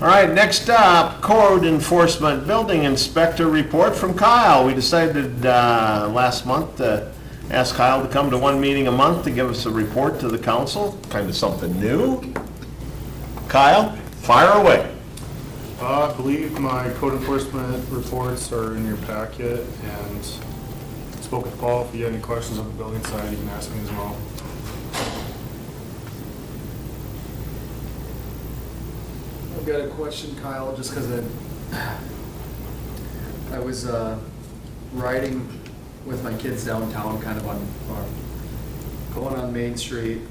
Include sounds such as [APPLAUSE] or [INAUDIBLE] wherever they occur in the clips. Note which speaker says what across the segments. Speaker 1: All right, next up, code enforcement building inspector report from Kyle. We decided uh, last month to ask Kyle to come to one meeting a month to give us a report to the council, kind of something new. Kyle, fire away.
Speaker 2: Uh, I believe my code enforcement reports are in your packet, and spoke with Paul, if you have any questions on the building side, you can ask me as well.
Speaker 3: I've got a question, Kyle, just because I, I was uh, riding with my kids downtown, kind of on, on- going on Main Street.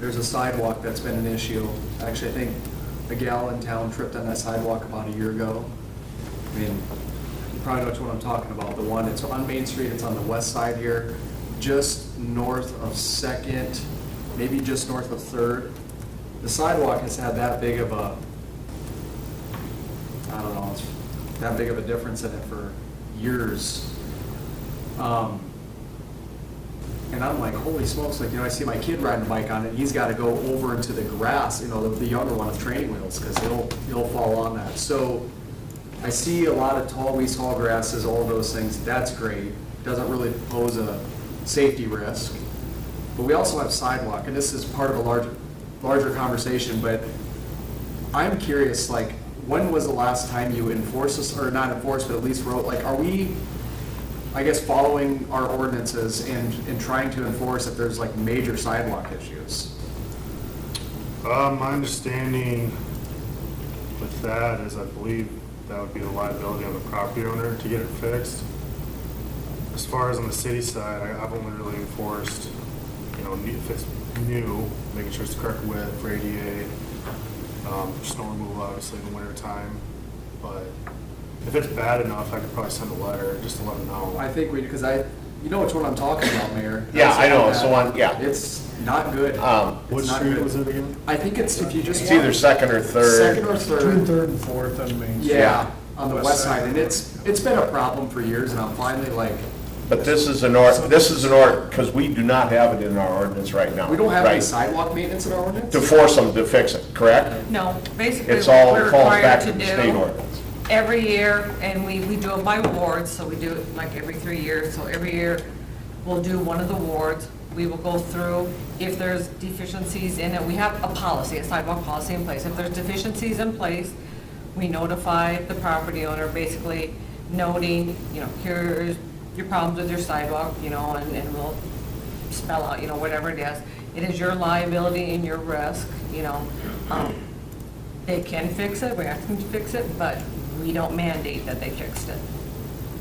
Speaker 3: There's a sidewalk that's been an issue. Actually, I think a gal in town tripped on that sidewalk about a year ago. I mean, you probably know which one I'm talking about, the one, it's on Main Street, it's on the west side here, just north of Second, maybe just north of Third. The sidewalk has had that big of a, I don't know, it's that big of a difference in it for years. Um, And I'm like, holy smokes, like, you know, I see my kid riding a bike on it, he's gotta go over into the grass, you know, the the younger one of training wheels, because he'll, he'll fall on that. So I see a lot of tall weeds, tall grasses, all those things, that's great, doesn't really pose a safety risk. But we also have sidewalk, and this is part of a larger, larger conversation, but I'm curious, like, when was the last time you enforced this, or not enforced, but at least wrote, like, are we, I guess, following our ordinances and, and trying to enforce if there's like major sidewalk issues?
Speaker 2: Uh, my understanding with that is I believe that would be the liability of the property owner to get it fixed. As far as on the city side, I- I've only really enforced, you know, new- if it's new, making sure it's the correct width for ADA, um, snow removal obviously in the winter time, but if it's bad enough, I could probably send a letter just to let them know.
Speaker 3: I think we, because I, you know which one I'm talking about, Mayor.
Speaker 1: Yeah, I know, it's the one- yeah.
Speaker 3: It's not good.
Speaker 1: Um,
Speaker 3: It's
Speaker 2: What
Speaker 3: not
Speaker 2: street
Speaker 3: good.
Speaker 2: was it again?
Speaker 3: I think it's if you just.
Speaker 1: It's either second or
Speaker 3: Second or
Speaker 1: third.
Speaker 3: third.
Speaker 4: and fourth on Main
Speaker 3: Yeah, on the west side, and it's, it's been a problem for years, and I'm finally like,
Speaker 1: But this is an ord, this is an ord, because we do not have it in our ordinance right now.
Speaker 3: we don't have any
Speaker 1: right?
Speaker 3: sidewalk maintenance in our ordinance?
Speaker 1: To force them to fix it, correct?
Speaker 5: No, basically,
Speaker 1: It's
Speaker 5: what
Speaker 1: all,
Speaker 5: we're
Speaker 1: it falls
Speaker 5: required
Speaker 1: back
Speaker 5: to
Speaker 1: to the state
Speaker 5: do
Speaker 1: ordinance.
Speaker 5: every year, and we, we do it by wards, so we do it like every three years. So every year, we'll do one of the wards. We will go through, if there's deficiencies in it, we have a policy, a sidewalk policy in place. If there's deficiencies in place, we notify the property owner, basically noting, you know, here's your problems with your sidewalk, you know, and, and we'll spell out, you know, whatever it is. It is your liability and your risk, you know. Um, They can fix it, we ask them to fix it, but we don't mandate that they fixed it.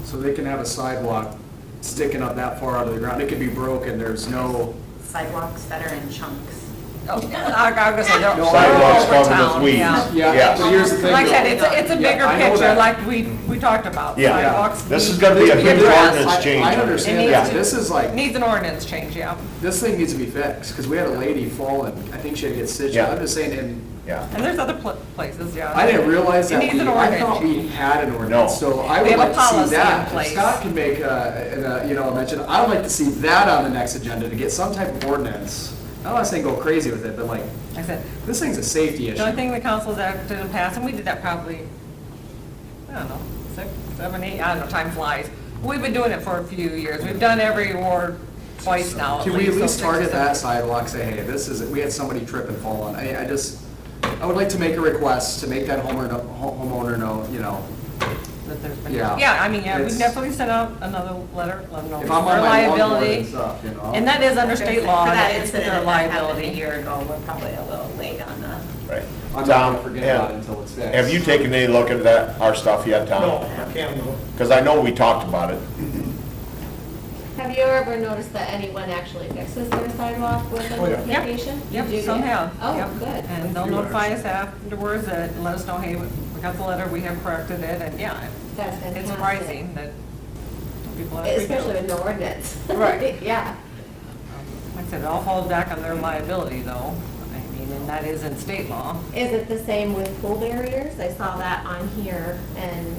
Speaker 3: So they can have a sidewalk sticking up that far out of the ground, it could be broken, there's no,
Speaker 6: sidewalks that are in chunks.
Speaker 5: Oh, I, I was gonna say, they're all
Speaker 1: Sidewalks
Speaker 5: over
Speaker 1: covered with
Speaker 5: town,
Speaker 1: weeds.
Speaker 5: yeah.
Speaker 3: yeah, but here's the thing.
Speaker 5: Like I said,
Speaker 3: though.
Speaker 5: it's, a- it's a
Speaker 3: Yeah,
Speaker 5: bigger
Speaker 3: I know
Speaker 5: picture,
Speaker 3: that.
Speaker 5: like we, we talked about,
Speaker 1: Yeah.
Speaker 5: sidewalks.
Speaker 1: This is
Speaker 5: weeds.
Speaker 1: gonna be a huge
Speaker 5: Grass.
Speaker 1: ordinance change.
Speaker 3: I
Speaker 5: It
Speaker 3: understand
Speaker 5: needs
Speaker 3: that,
Speaker 5: to-
Speaker 3: this is like,
Speaker 5: Needs an ordinance change, yeah.
Speaker 3: this thing needs to be fixed, because we had a lady fall and I think she had to get stitched,
Speaker 1: Yeah.
Speaker 3: I'm just saying, and
Speaker 1: Yeah.
Speaker 5: And there's other pl- places, yeah.
Speaker 3: I didn't realize that
Speaker 5: It needs
Speaker 3: we,
Speaker 5: an
Speaker 3: I
Speaker 5: ordinance.
Speaker 3: thought we had an ordinance, so I
Speaker 5: We
Speaker 3: would
Speaker 5: have a
Speaker 3: like to see
Speaker 5: policy in
Speaker 3: that. If
Speaker 5: place.
Speaker 3: Scott can make, uh, an, uh, you know, a mention, I would like to see that on the next agenda, to get some type of ordinance. I'm not saying go crazy with it, but like,
Speaker 5: Like I said,
Speaker 3: this thing's a safety
Speaker 5: The only
Speaker 3: issue.
Speaker 5: thing the council's acted in past, and we did that probably, I don't know, six, seven, eight, I don't know, time flies. We've been doing it for a few years. We've done every ward twice now.
Speaker 3: Can we at
Speaker 5: so
Speaker 3: least
Speaker 5: six or
Speaker 3: target
Speaker 5: seven.
Speaker 3: that sidewalk, say, hey, this is, we had somebody trip and fall on, I, I just, I would like to make a request to make that homeowner, know- homeowner know, you know,
Speaker 5: That there's been-
Speaker 3: Yeah.
Speaker 5: Yeah, I mean, yeah, we
Speaker 3: It's-
Speaker 5: definitely sent out another letter, let them know
Speaker 3: if I'm on
Speaker 5: our
Speaker 3: my lawnmower
Speaker 5: liability.
Speaker 3: and stuff, you know.
Speaker 5: And that is under state law,
Speaker 6: For
Speaker 5: that is
Speaker 6: incident
Speaker 5: their
Speaker 6: that happened A
Speaker 5: liability.
Speaker 6: year ago, we're probably a little late on that.
Speaker 1: Right.
Speaker 3: I'm not
Speaker 1: Tom,
Speaker 3: gonna forget about it
Speaker 1: have-
Speaker 3: until it's fixed.
Speaker 1: Have you taken any look at that, our stuff yet, Tom?
Speaker 4: No, I can't, no.
Speaker 1: Because I know we talked about it.
Speaker 7: Have you ever noticed that anyone actually fixes their sidewalk with a
Speaker 4: Oh, yeah.
Speaker 5: Yep.
Speaker 7: notification?
Speaker 5: Yep,
Speaker 7: You do
Speaker 5: some
Speaker 7: get-
Speaker 5: have.
Speaker 7: Oh,
Speaker 5: Yep.
Speaker 7: good.
Speaker 5: And they'll notify us afterwards that, let us know, hey, we got the letter, we have corrected it, and yeah.
Speaker 7: That's
Speaker 5: It's
Speaker 7: fantastic.
Speaker 5: surprising that people. actually do.
Speaker 7: Especially with no ordinance. [LAUGHS]
Speaker 5: Right.
Speaker 7: Yeah.
Speaker 5: Like I said, it all falls back on their liability, though. I mean, and that is in state law.
Speaker 7: Is it the same with pool barriers? I saw that on here. And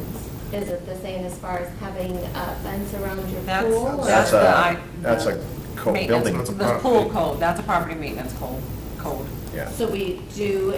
Speaker 7: is it the same as far as having a fence around your
Speaker 5: That's-
Speaker 7: pool? or-
Speaker 5: That's uh,
Speaker 1: That's
Speaker 5: the I-
Speaker 1: a, that's a co-
Speaker 5: Maintenance-
Speaker 1: building,
Speaker 2: That's a
Speaker 5: The pool
Speaker 2: property.
Speaker 5: code, that's a property maintenance code, code.
Speaker 1: yeah.
Speaker 7: So we do